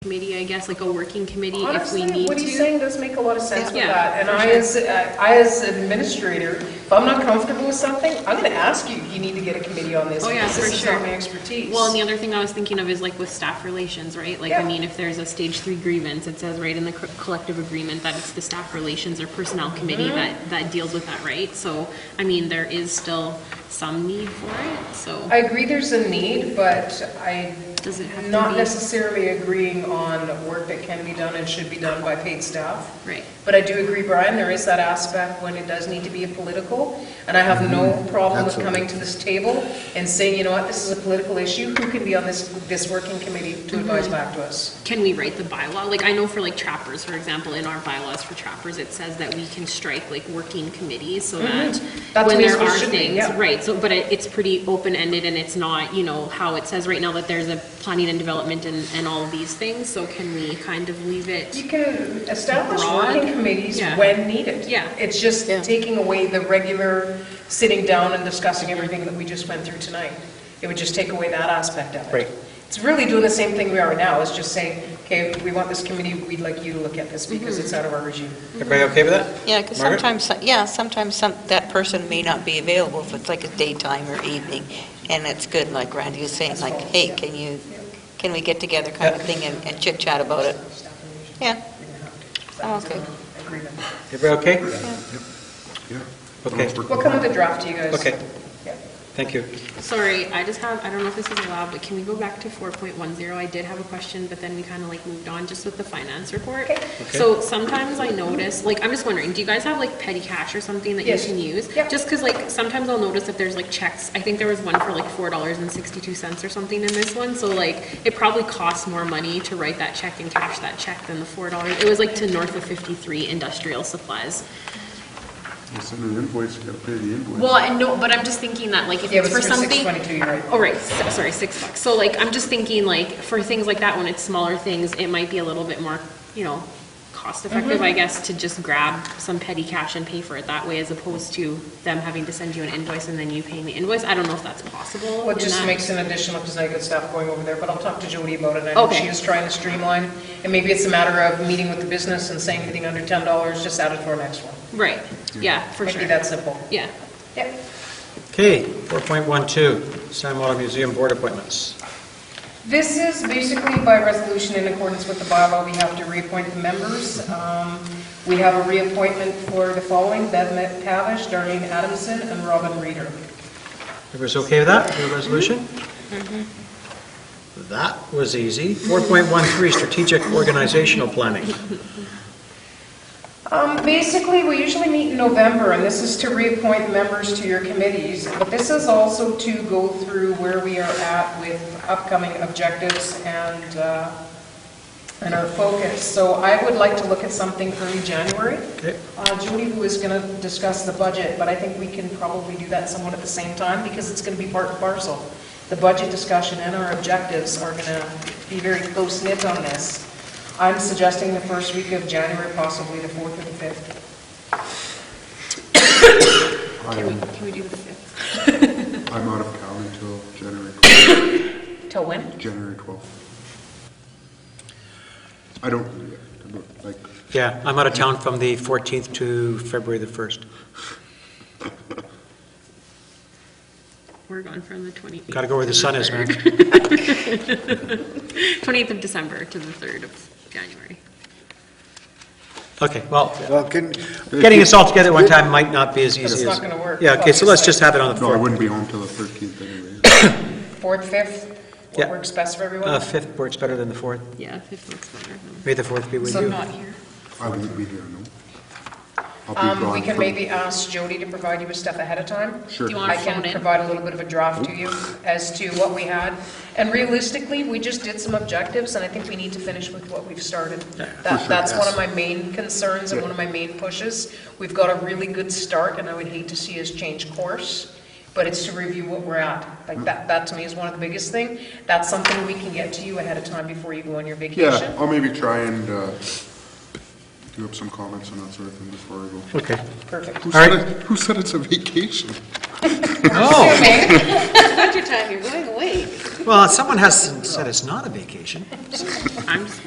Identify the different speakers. Speaker 1: committee, I guess, like a working committee if we
Speaker 2: Honestly,
Speaker 1: need
Speaker 2: what he's
Speaker 1: to.
Speaker 2: saying does make a lot of sense with
Speaker 1: Yeah.
Speaker 2: that. And I, as, I as administrator, if I'm not comfortable with something, I'm going to ask you, you need to get a committee on this.
Speaker 1: Oh, yeah,
Speaker 2: because
Speaker 1: for
Speaker 2: This is not
Speaker 1: sure.
Speaker 2: my expertise.
Speaker 1: Well, and the other thing I was thinking of is like with staff relations, right? Like, I
Speaker 2: Yeah.
Speaker 1: mean, if there's a stage three grievance, it says right in the co- collective agreement that it's the staff relations or personnel committee
Speaker 2: Mm-hmm.
Speaker 1: that, that deals with that, right? So, I mean, there is still some need for it, so.
Speaker 2: I agree there's a need, but I
Speaker 1: Does it have to
Speaker 2: am not
Speaker 1: be-
Speaker 2: necessarily agreeing on work that can be done and should be done by paid staff.
Speaker 1: Right.
Speaker 2: But I do agree, Brian, there is that aspect when it does need to be a political, and I have no problem with coming to this table and saying, you know what, this is a political issue, who can be on this, this working committee to
Speaker 1: Mm-hmm.
Speaker 2: advise back to us?
Speaker 1: Can we write the bylaw? Like, I know for like trappers, for example, in our bylaws for trappers, it says that we can strike like working committees so that
Speaker 2: Mm-hmm. That's
Speaker 1: when
Speaker 2: what it's
Speaker 1: there are
Speaker 2: supposed to be,
Speaker 1: things,
Speaker 2: yeah.
Speaker 1: right, so, but it, it's pretty open-ended and it's not, you know, how it says right now that there's a planning and development and, and all of these things, so can we kind of leave it?
Speaker 2: You can establish
Speaker 1: Broad?
Speaker 2: working committees
Speaker 1: Yeah.
Speaker 2: when needed.
Speaker 1: Yeah.
Speaker 2: It's just
Speaker 3: Yeah.
Speaker 2: taking away the regular sitting down and discussing everything that we just went through tonight. It would just take away that aspect of it.
Speaker 3: Right.
Speaker 2: It's really doing the same thing we are now, is just saying, okay, we want this committee, we'd like you to look at this because
Speaker 1: Mm-hmm.
Speaker 2: it's out of our regime.
Speaker 4: Everybody okay with that?
Speaker 3: Yeah, because
Speaker 4: Margaret?
Speaker 3: sometimes, yeah, sometimes some, that person may not be available if it's like a daytime or evening, and it's good, like Randy was saying, like, hey, can you, can we get together kind of
Speaker 4: Yeah.
Speaker 3: thing and- and chit chat about it? Yeah. I'm okay.
Speaker 2: Agreement.
Speaker 4: Everybody okay? Okay,
Speaker 2: We'll come with a draft to you guys.
Speaker 4: Okay.
Speaker 2: Yeah.
Speaker 4: thank you.
Speaker 1: Sorry, I just have, I don't know if this is allowed, but can we go back to four point one zero? I did have a question, but then we kind of like moved on just with the finance report. So sometimes I notice, like, I'm just wondering, do you guys have like petty cash or something that you
Speaker 2: Yes.
Speaker 1: can use?
Speaker 2: Yeah.
Speaker 1: Just because like, sometimes I'll notice that there's like checks, I think there was one for like four dollars and sixty-two cents or something in this one, so like, it probably costs more money to write that check and cash that check than the four dollars. It was like to north of fifty-three industrial supplies.
Speaker 5: You send an invoice, you gotta pay the invoice.
Speaker 1: Well, I know, but I'm just thinking that like, if
Speaker 2: Yeah, it
Speaker 1: it's
Speaker 2: was
Speaker 1: for
Speaker 2: for
Speaker 1: something.
Speaker 2: 622, you're right.
Speaker 1: Oh, right, so- sorry, six bucks. So like, I'm just thinking like, for things like that, when it's smaller things, it might be a little bit more, you know, cost effective,
Speaker 2: Mm-hmm.
Speaker 1: I guess, to just grab some petty cash and pay for it that way as opposed to them having to send you an invoice and then you paying the invoice. I don't know if that's possible.
Speaker 2: Well, it
Speaker 1: in
Speaker 2: just
Speaker 1: that-
Speaker 2: makes an additional, because I got staff going over there, but I'll talk to Jody about it. I know
Speaker 1: Okay.
Speaker 2: she is trying to streamline, and maybe it's a matter of meeting with the business and saying anything under ten dollars, just add it to our next one.
Speaker 1: Right, yeah, for
Speaker 2: Might be
Speaker 1: sure.
Speaker 2: that simple.
Speaker 1: Yeah.
Speaker 2: Yeah.
Speaker 4: Okay, 4.12, Sam Water Museum Board Appointments.
Speaker 2: This is basically by resolution in accordance with the bylaw, we have to reappoint the members. Um, We have a reappointment for the following, Bev Pavish, Darlene Adamson, and Robin Reeder.
Speaker 4: Everybody's okay with that,
Speaker 2: Mm-hmm.
Speaker 4: the resolution? That was easy. 4.13, Strategic Organizational Planning.
Speaker 2: Um, Basically, we usually meet in November, and this is to reappoint members to your committees, but this is also to go through where we are at with upcoming objectives and, uh, and our focus. So I would like to look at something early January.
Speaker 4: Okay.
Speaker 2: Uh, Judy was going to discuss the budget, but I think we can probably do that somewhat at the same time, because it's going to be part and parcel. The budget discussion and our objectives are going to be very close-knit on this. I'm suggesting the first week of January, possibly the 4th or the 5th.
Speaker 1: Can we,
Speaker 5: I'm
Speaker 1: can we do the fifth?
Speaker 5: I'm out of town until January,
Speaker 2: Till when?
Speaker 5: January 12th. I don't, I don't, like,
Speaker 4: Yeah, I'm out of town from the 14th to February the 1st.
Speaker 1: We're gone from the twenty-eighth.
Speaker 4: Got to go where the sun is, man.
Speaker 1: Twenty-eighth of December to the third of January.
Speaker 4: Okay, well,
Speaker 6: Well, can,
Speaker 4: getting us all together at one time might not be as easy as...
Speaker 2: it's not gonna work,
Speaker 4: Yeah, okay, so let's
Speaker 2: obviously.
Speaker 4: just have it on the
Speaker 5: no, I
Speaker 4: 4th.
Speaker 5: wouldn't be home till the 13th anyway.
Speaker 2: 4th, 5th?
Speaker 4: Yeah.
Speaker 2: What works best for
Speaker 4: Uh,
Speaker 2: everyone?
Speaker 4: 5th works better than the 4th.
Speaker 1: Yeah, fifth looks better. than-
Speaker 4: May the 4th be with
Speaker 2: So
Speaker 4: you.
Speaker 2: not here.
Speaker 5: I won't be here, no. I'll be
Speaker 2: Um,
Speaker 5: gone.
Speaker 2: We can
Speaker 5: for-
Speaker 2: maybe ask Jody to provide you with stuff ahead of time.
Speaker 5: Sure.
Speaker 1: Do you
Speaker 2: I
Speaker 1: want to
Speaker 2: can
Speaker 1: phone in?
Speaker 2: provide a little bit of a draft to you as to what we had. And realistically, we just did some objectives, and I think we need to finish with what we've started. That,
Speaker 5: sure,
Speaker 2: that's one of my
Speaker 5: yes.
Speaker 2: main concerns and one of my main pushes. We've got a really good start, and I would hate to see us change course, but it's to review what we're at.
Speaker 5: Mm.
Speaker 2: Like, that, that to me is one of the biggest thing. That's something we can get to you ahead of time before you go on your
Speaker 5: Yeah,
Speaker 2: vacation.
Speaker 5: I'll maybe try and uh, do up some comments and that sort of thing before I go.
Speaker 4: Okay.
Speaker 2: Perfect.
Speaker 5: Who
Speaker 4: All
Speaker 5: said
Speaker 4: right.
Speaker 5: it- Who said it's a vacation?
Speaker 4: Oh!
Speaker 2: Okay.
Speaker 3: you're going away.
Speaker 4: Well, someone has said it's not a vacation.
Speaker 1: I'm just wondering.